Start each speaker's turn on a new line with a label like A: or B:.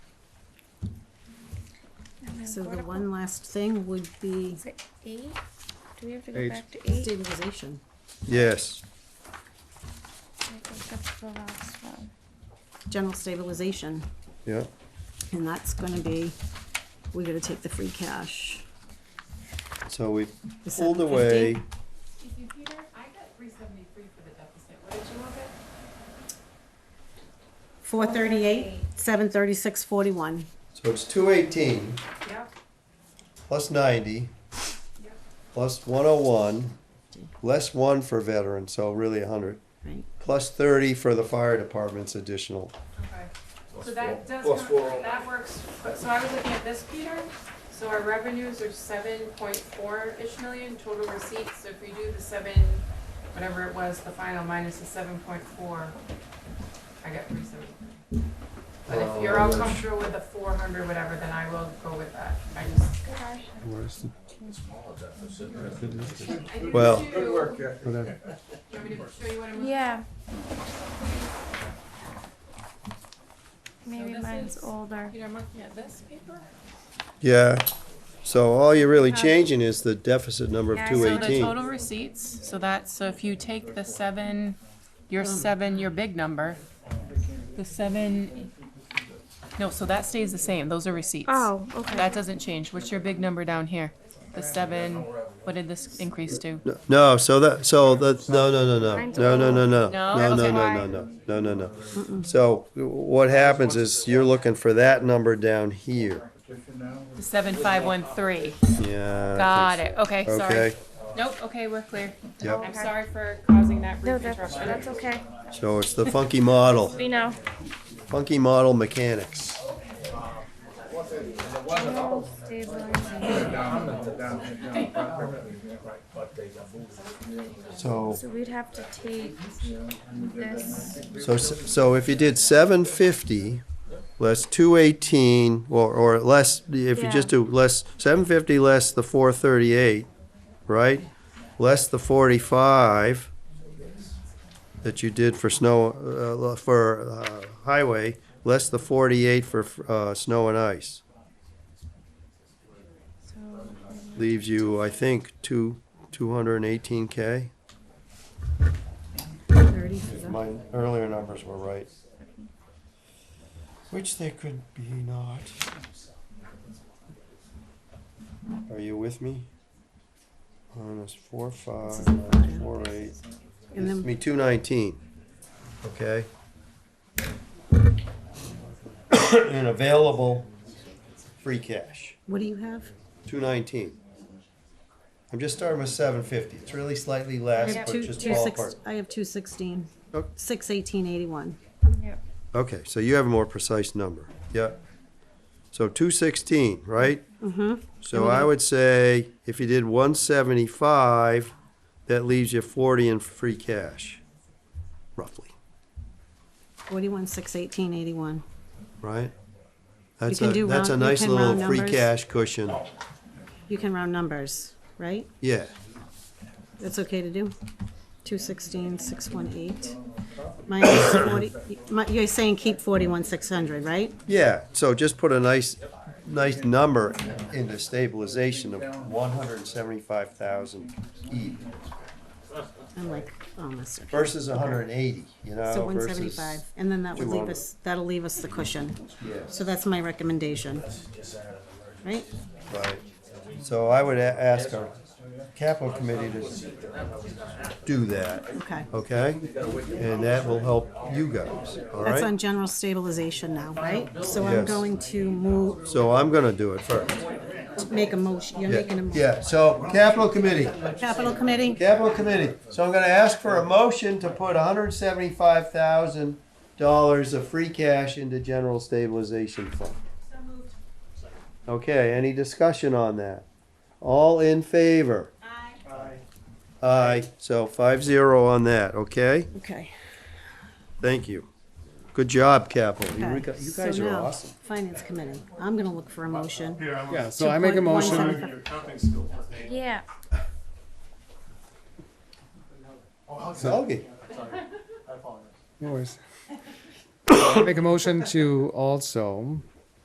A: So the one last thing would be
B: Is it eight? Do we have to go
C: Eight.
B: back to eight?
A: stabilization.
C: Yes.
B: I think that's the last one.
A: general stabilization,
C: Yeah.
A: and that's gonna be, we're gonna take the free cash.
C: So we
A: The
C: pulled
A: 750.
C: away.
D: Excuse me, Peter, I got three seventy-three for the deficit, what did you want it?
A: Four thirty-eight, seven thirty-six, forty-one.
C: So it's two eighteen
D: Yep.
C: plus ninety plus one oh one less one for veterans, so really a hundred.
A: Right.
C: Plus thirty for the fire department's additional.
D: Okay, so that does,
E: plus
D: come- that works, but, so I was looking at this, Peter, so our revenues are seven point four-ish million, total receipts, so if we do the seven, whatever it was, the final minus the seven point four, I got three seventy-three. But if you're all
C: Oh, gosh.
D: comfortable with the four hundred, whatever, then I will go with that, I just,
C: Where's the-
D: I do
C: Well-
D: two-
E: Good work, Jack.
C: whatever.
D: You want me to show you what I'm looking
B: Yeah.
D: So
B: Maybe
D: this
B: mine's
D: is-
B: older.
D: Peter, I'm looking at this paper.
C: Yeah, so all you're really
B: Um,
C: changing is the deficit number
B: yeah,
C: of
B: I saw
C: two
B: the
D: Uh, So the
C: eighteen.
D: total receipts, so that's, so if you take the seven,
B: Hmm.
D: your seven, your big number, the seven, no, so that stays the same, those are receipts.
B: Oh, okay.
D: That doesn't change, what's your big number down here? The seven, what did this increase to?
C: No, so that, so that, no, no, no, no,
B: Mine's
C: no, no, no, no,
D: No?
C: no, no,
D: Okay.
C: no, no, no, no, no, no. So what happens is you're looking for that number down here.
D: The seven, five, one, three,
C: Yeah. I
D: got
C: think
D: it, okay,
C: so.
D: sorry.
C: Okay,
D: Nope, okay, we're clear. I'm
C: yep,
D: sorry for causing that
B: No,
D: brief
B: that's,
D: interruption.
B: that's okay.
C: so it's the funky model,
B: We know.
C: funky model mechanics.
B: Stabilization.
C: So,
B: So we'd have to take this.
C: so, so if you did seven fifty, less two eighteen, or, or less, if you
B: Yeah.
C: just do less, seven fifty less the four thirty-eight, right? Less the forty-five that you did for snow, uh, for, uh, highway, less the forty-eight for, uh, snow and ice.
B: So
C: leaves you, I think, two, two hundred and eighteen K.
A: Thirty for the-
C: My earlier numbers were right. Which they could be not. Are you with me? Minus four,
A: This
C: five,
A: is a
C: minus
A: five.
C: four, eight,
A: And
C: gives
A: then
C: me two nineteen, okay? And available free cash.
A: what do you have?
C: Two nineteen. I'm just starting with seven fifty. It's really slightly
A: I
C: less,
A: have
C: but
A: two,
C: just
A: two six,
C: ballpark.
A: I have two sixteen,
C: Oh.
A: six eighteen, eighty-one.
C: Okay, so you have a more precise number. Yeah. So two sixteen, right?
A: Mm-hmm,
C: So I would say if you did one seventy-five, that leaves you forty in free cash, roughly,
A: forty-one, six eighteen, eighty-one.
C: right? That's
A: can
C: a,
A: do
C: that's a
A: round- you
C: nice
A: can
C: little
A: round
C: free
A: numbers.
C: cash cushion.
A: You can round numbers, right?
C: Yeah,
A: That's okay to do. Two sixteen, six one eight. Minus forty, my- you're saying keep forty-one, six hundred, right?
C: yeah. So just put a nice, nice number into stabilization of one hundred and seventy-five thousand even.
A: I'm like, almost. there.
C: versus 180, you know.
A: So one
C: versus-
A: seventy-five, and then that would leave
C: 200.
A: us, that'll leave us the cushion.
C: Yes,
A: So that's my recommendation. Right?
C: right. So I would a- ask our capital committee to s- do that,
A: Okay.
C: okay? And that will help you guys, all
A: That's on
C: right?
A: general stabilization now, right? So I'm
C: Yes.
A: going to move,
C: So I'm gonna do it first.
A: make a motion, you're making a
C: Yeah,
A: motion.
C: yeah, so capital committee,
A: Capital Committee,
C: capital committee. So I'm gonna ask for a motion to put $175,000 of free cash into general stabilization fund. Okay, any discussion on that? All in favor? Aye, so five zero on that, okay?
A: okay.
C: Thank you. Good job, Capital. You
A: okay.
C: re- you
A: So
C: guys are
A: now,
C: awesome.
A: Finance Committee, I'm gonna look for a motion.
F: Yeah, so I make a
A: put one
F: motion,
A: seventy-
B: Yeah.
C: Okay.
F: no worries. make a motion to also